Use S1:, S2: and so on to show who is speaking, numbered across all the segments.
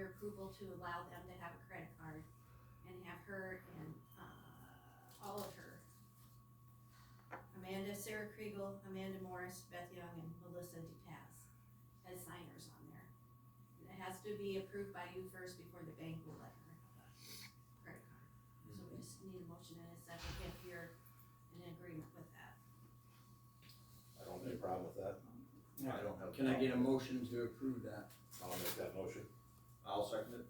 S1: approval to allow them to have a credit card and have her and, uh, all of her. Amanda, Sarah Kriegel, Amanda Morris, Beth Young, and Melissa DePass as signers on there. And It has to be approved by you first before the bank will let her have a credit card. So we just need a motion and a second if you're in agreement with that.
S2: I don't have a problem with that. I don't have.
S3: Can I get a
S2: problem.
S3: motion to approve that?
S2: I'll make that motion.
S4: I'll second it.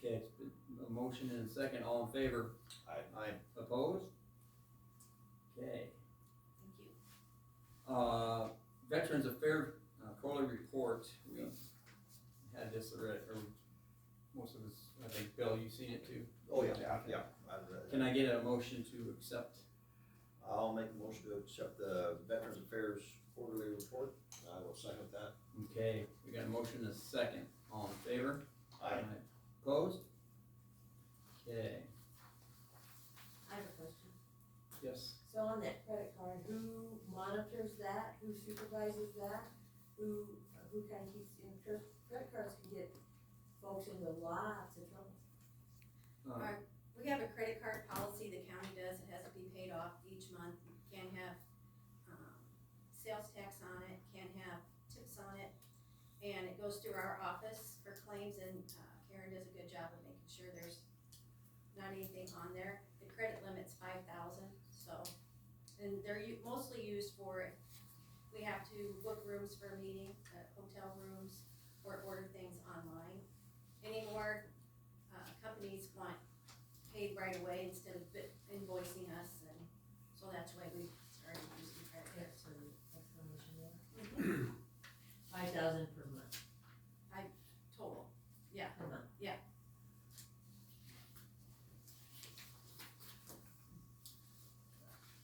S3: Okay, it's been a motion and a second, all in favor?
S2: Aye.
S4: Aye.
S3: Opposed? Okay,
S1: Thank you.
S3: uh, Veterans Affairs uh, quarterly report, we had this already, or most of us, I think, Bill, you've seen it too.
S4: Oh, yeah, yeah, I read it.
S3: Can I get a motion to accept?
S4: I'll make a motion to accept the Veterans Affairs quarterly report.
S2: I will second that.
S3: Okay, we got a motion and a second, all in favor?
S2: Aye.
S3: Opposed? Okay,
S5: I have a question.
S3: yes,
S5: So on that credit card, who monitors that? Who supervises that? Who, who kind of keeps, in credit credit cards can get folks into lots of trouble.
S3: uh,
S1: We have a credit card policy the county does, it has to be paid off each month, can't have, um, sales tax on it, can't have tips on it. And it goes through our office for claims and uh, Karen does a good job of making sure there's not anything on there. The credit limit's five thousand, so, and they're u- mostly used for, if we have to book rooms for a meeting, uh, hotel rooms, or order things online. Anymore, uh, companies want paid right away instead of bi- invoicing us, and so that's why we started using credit cards.
S5: That's an explanation there. Five thousand per month,
S1: total.
S5: per month.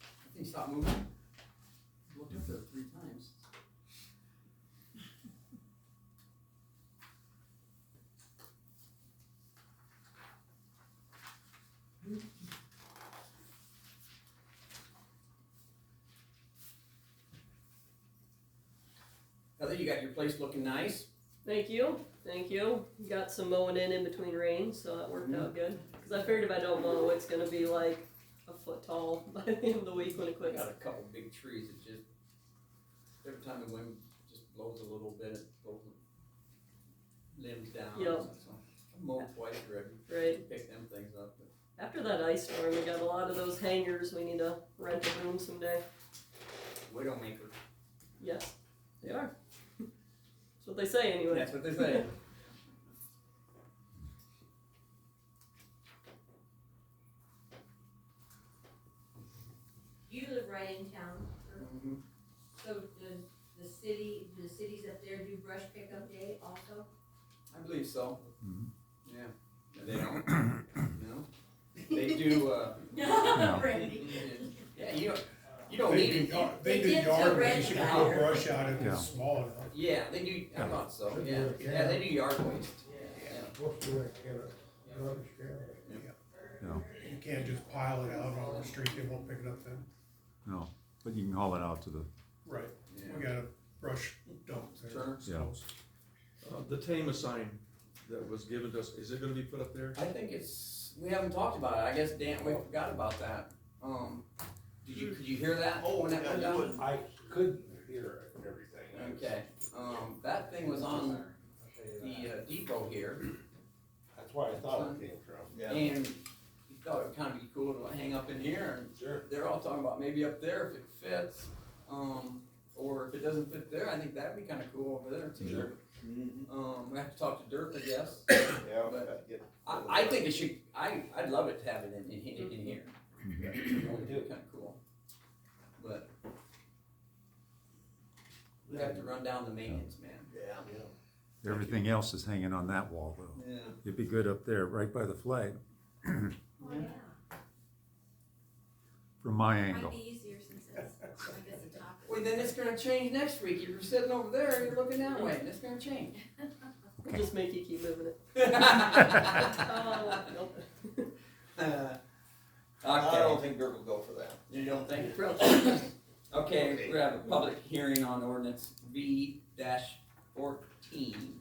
S3: I think stop moving. Looked at it three times. Heather, you got your place looking nice.
S6: Thank you, thank you. Got some mowing in in between rains, so that worked out good. Cause I figured if I don't mow, it's gonna be like a foot tall by the end of the week when it
S3: We
S6: quits.
S3: got a couple big trees that just, every time the wind just blows a little bit, it blows the limbs down.
S6: Yep.
S3: So, Mow twice or every,
S6: Right.
S3: pick them things up, but
S6: After that ice storm, we got a lot of those hangers. We need to rent a room someday.
S3: Widowmaker.
S6: Yes, they are. That's what they say anyway.
S3: That's what they say.
S5: You live right in town,
S6: Mm-hmm.
S3: Mhm.
S5: so does the city, do the cities up there do brush pickup day also?
S3: I believe so.
S7: Mm-hmm.
S8: Mhm.
S3: Yeah. They don't? No? They do, uh,
S5: Randy.
S3: yeah, you don't, you don't need
S7: do
S3: it.
S7: yard- They
S5: They
S7: do
S5: did the
S7: yard,
S5: red
S7: waste. you can
S5: fire.
S7: put brush out if
S8: Yeah.
S7: it's small enough.
S3: Yeah, they do, I thought so,
S7: Should
S3: yeah.
S7: work,
S3: Yeah, they do yard waste.
S7: What's the right kind of rubbish can?
S8: Yeah.
S7: You can't just pile it out on the street, they won't pick it up then.
S8: No, but you can haul it out to the,
S7: Right. We
S3: Yeah.
S7: got a brush dump there.
S3: Sure.
S8: Yeah.
S9: Uh, The Tama sign that was given to us, is it gonna be put up there?
S3: I think it's, we haven't talked about it. I guess Dan, we forgot about that. Um, did you, could you hear that?
S4: Oh,
S3: when that went down?
S2: I couldn't hear everything.
S3: Okay, um, that thing was on the uh, depot here
S2: That's where I
S3: thought
S2: it came from.
S4: Yeah.
S3: and we thought it'd kind of be cool to hang up in here and
S2: Sure.
S3: they're all talking about maybe up there if it fits, um, or if it doesn't fit there, I think that'd be kinda cool over there too. Um, we have to talk to Dirk, I guess.
S2: Yeah, but yeah,
S3: I, I think it should, I, I'd love it to have it in, in, he- in here. It'd be kinda cool. But we have to run down the maintenance, man.
S4: Yeah.
S8: everything else is hanging on that wall though.
S3: Yeah.
S8: It'd be good up there, right by the flag,
S5: Oh, yeah.
S8: from my
S1: Might
S8: angle.
S1: be easier since it's, I guess, a topic.
S3: Well, then it's gonna change next week. You're sitting over there, you're looking that way, and it's gonna change.
S6: We'll just make you keep moving it. Oh, nope.
S4: I don't
S3: Okay,
S4: think Dirk will go for that.
S3: you don't think?
S6: Really.
S3: Okay, we're gonna have a public hearing on ordinance V dash fourteen.